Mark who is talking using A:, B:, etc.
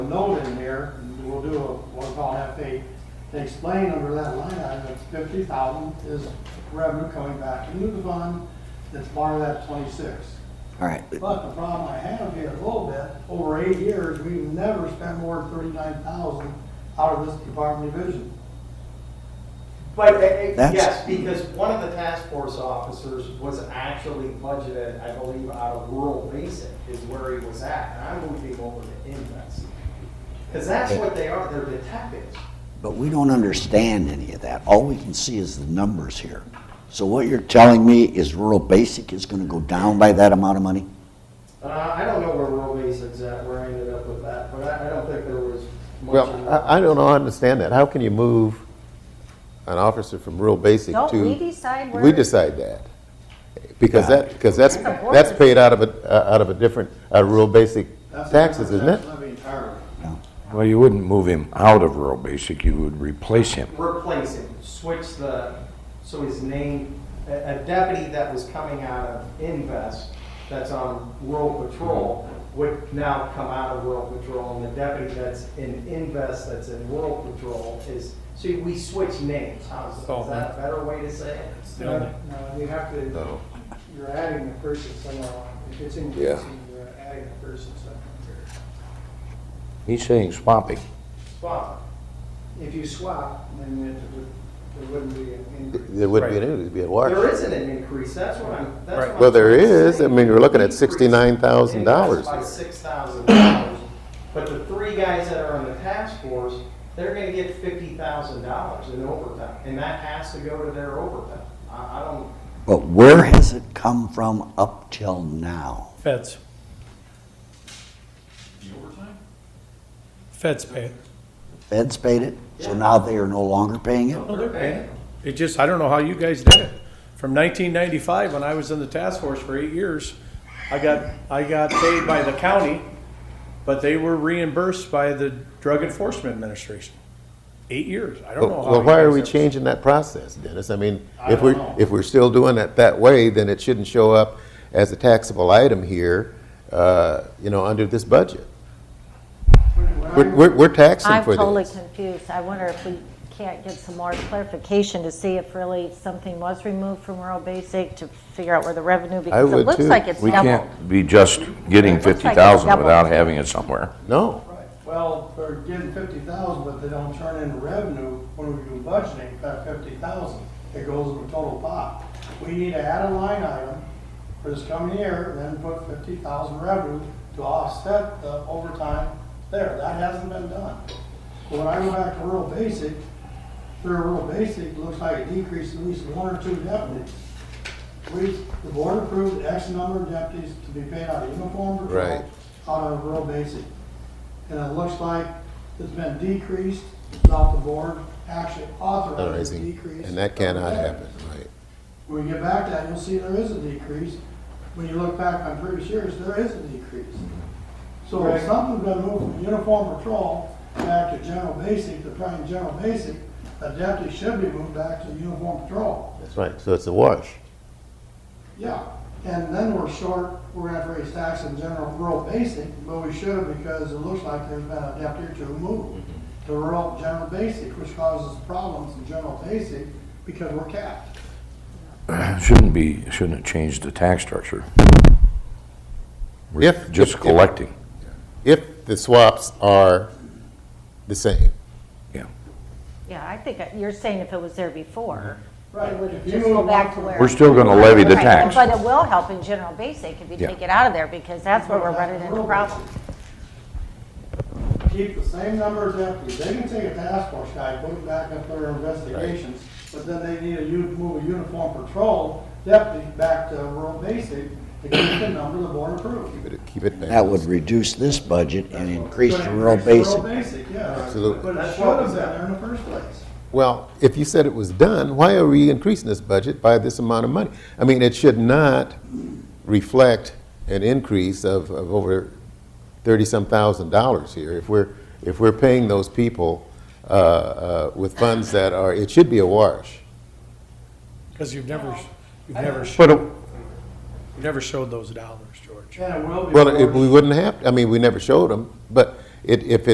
A: note in here, and we'll do a, we'll call FA, to explain under that line item, that fifty thousand is revenue coming back into the fund that's part of that twenty-six.
B: All right,
A: But the problem I have here a little bit, over eight years, we've never spent more than thirty-nine thousand out of this department division.
C: But, uh, uh,
B: That's-
C: yes, because one of the task force officers was actually budgeted, I believe, out of rural basic is where he was at. And I'm moving over to invest. Because that's what they are, they're detectives.
B: but we don't understand any of that. All we can see is the numbers here. So what you're telling me is rural basic is gonna go down by that amount of money?
C: Uh, I don't know where rural basic's at, where I ended up with that, but I, I don't think there was much. in
D: Well,
C: that.
D: I, I don't know, I understand that. How can you move an officer from rural basic
E: Don't
D: to?
E: we decide where-
D: We decide that. Because that, because that's,
E: That's a board
D: that's paid out of a, uh, out of a different, uh, rural basic
A: That's a
D: taxes, isn't it?
A: concept levy entirely.
F: Well, you wouldn't move him out of rural basic, you would replace him.
C: replace him, switch the, so his name, a a deputy that was coming out of Invest, that's on rural patrol, would now come out of rural patrol, and the deputy that's in Invest, that's in rural patrol is, so we switch names, how's, is that a better way to say it?
A: No, no, you have to,
D: Oh.
A: you're adding the person somewhere on. If it's increasing, you're adding the person somewhere.
F: He's saying swapping.
C: Spot.
A: If you swap, then it would, there wouldn't be an increase.
D: There wouldn't be an, it'd be a wash.
C: There isn't an increase, that's what I'm, that's what I'm.
D: Well, there
C: trying to
D: is.
C: say.
D: I mean, we're looking at
C: Increase-
D: $69,000
C: increase By
D: here.
C: six thousand dollars, but the three guys that are on the task force, they're gonna get fifty thousand dollars in overtime, and that has to go to their overtime. I, I don't,
B: But where has it come from up till now?
G: Feds. The overtime? Feds pay it.
B: Feds paid it, so now they are no longer paying it?
G: No, Oh, they're paying it. It just, I don't know how you guys did it. From nineteen ninety-five, when I was in the task force for eight years, I got, I got paid by the county, but they were reimbursed by the Drug Enforcement Administration. Eight years. I don't know how.
D: Well,
G: you
D: why are
G: guys
D: we
G: did it.
D: changing that process, Dennis? I mean,
A: I
D: if
A: don't
D: we're,
A: know.
D: if we're still doing it that way, then it shouldn't show up as a taxable item here, uh, you know, under this budget. We're, we're- we're taxing
E: I'm
D: for this.
E: totally confused. I wonder if we can't get some more clarification to see if really something was removed from rural basic to figure out where the revenue, because
D: would
E: it looks
D: too.
E: like it's
F: We
E: doubled.
F: can't be just getting
E: It looks like it's
F: fifty thousand
E: double.
F: without having it somewhere.
D: No.
A: Right. Well, they're getting fifty thousand, but they don't turn in revenue when we do budgeting, that fifty thousand. It goes in the total pot. We need to add a line item for this coming year, and then put fifty thousand revenue to offset the overtime there. That hasn't been done. But When I go back to rural basic, through rural basic, it looks like a decrease in at least one or two deputies. We, the board approved X number of deputies to be paid out of uniform patrol,
D: Right.
A: out of rural basic. And it looks like it's been decreased without the board actually authorizing a
D: Authorizing,
A: decrease.
D: and that cannot happen, right?
A: When you get back to that, you'll see there is a decrease. When you look back on previous years, there is a decrease. So if something's been moved from uniform patrol back to general basic, to prime general basic, a deputy should be moved back to uniform patrol.
D: That's right, so it's a wash.
A: Yeah, and then we're short, we're gonna have to raise tax in general rural basic, but we should because it looks like there's been a deputy or two moved to rural general basic, which causes problems in general basic because we're capped.
F: Shouldn't be, shouldn't it change the tax structure? We're
D: If-
F: Just
D: if- if-
F: collecting,
D: If the swaps are the same.
F: yeah.
E: Yeah, I think you're saying if it was there before,
A: Right.
E: it would
A: If you
E: just go
A: move one
E: back to
A: from-
E: where.
F: We're still gonna levy the
E: Right,
F: tax.
E: But it will help in general basic if you
F: Yeah.
E: take it out of there, because that's where we're running into problems.
A: Keep the same number of deputies, they can take a task force guy, put him back up their investigations, but then they need to u- move a uniform patrol deputy back to rural basic to get the number the board approved.
D: Keep it- Keep it
B: That would
D: balanced.
B: reduce this budget and increase
A: But
B: the rural
A: increase
B: basic.
A: Rural basic, yeah.
D: Absolutely.
A: But it should have been there in the first place.
D: Well, if you said it was done, why are we increasing this budget by this amount of money? I mean, it should not reflect an increase of, of over thirty-some thousand dollars here. If we're, if we're paying those people, uh, uh, with funds that are, it should be a wash.
G: Because you've never, you've never, sh-
D: But it-
G: you've never showed those dollars, George.
A: And it will be.
D: Well, if
A: forced-
D: we wouldn't have, I mean, we never showed them, but it, if it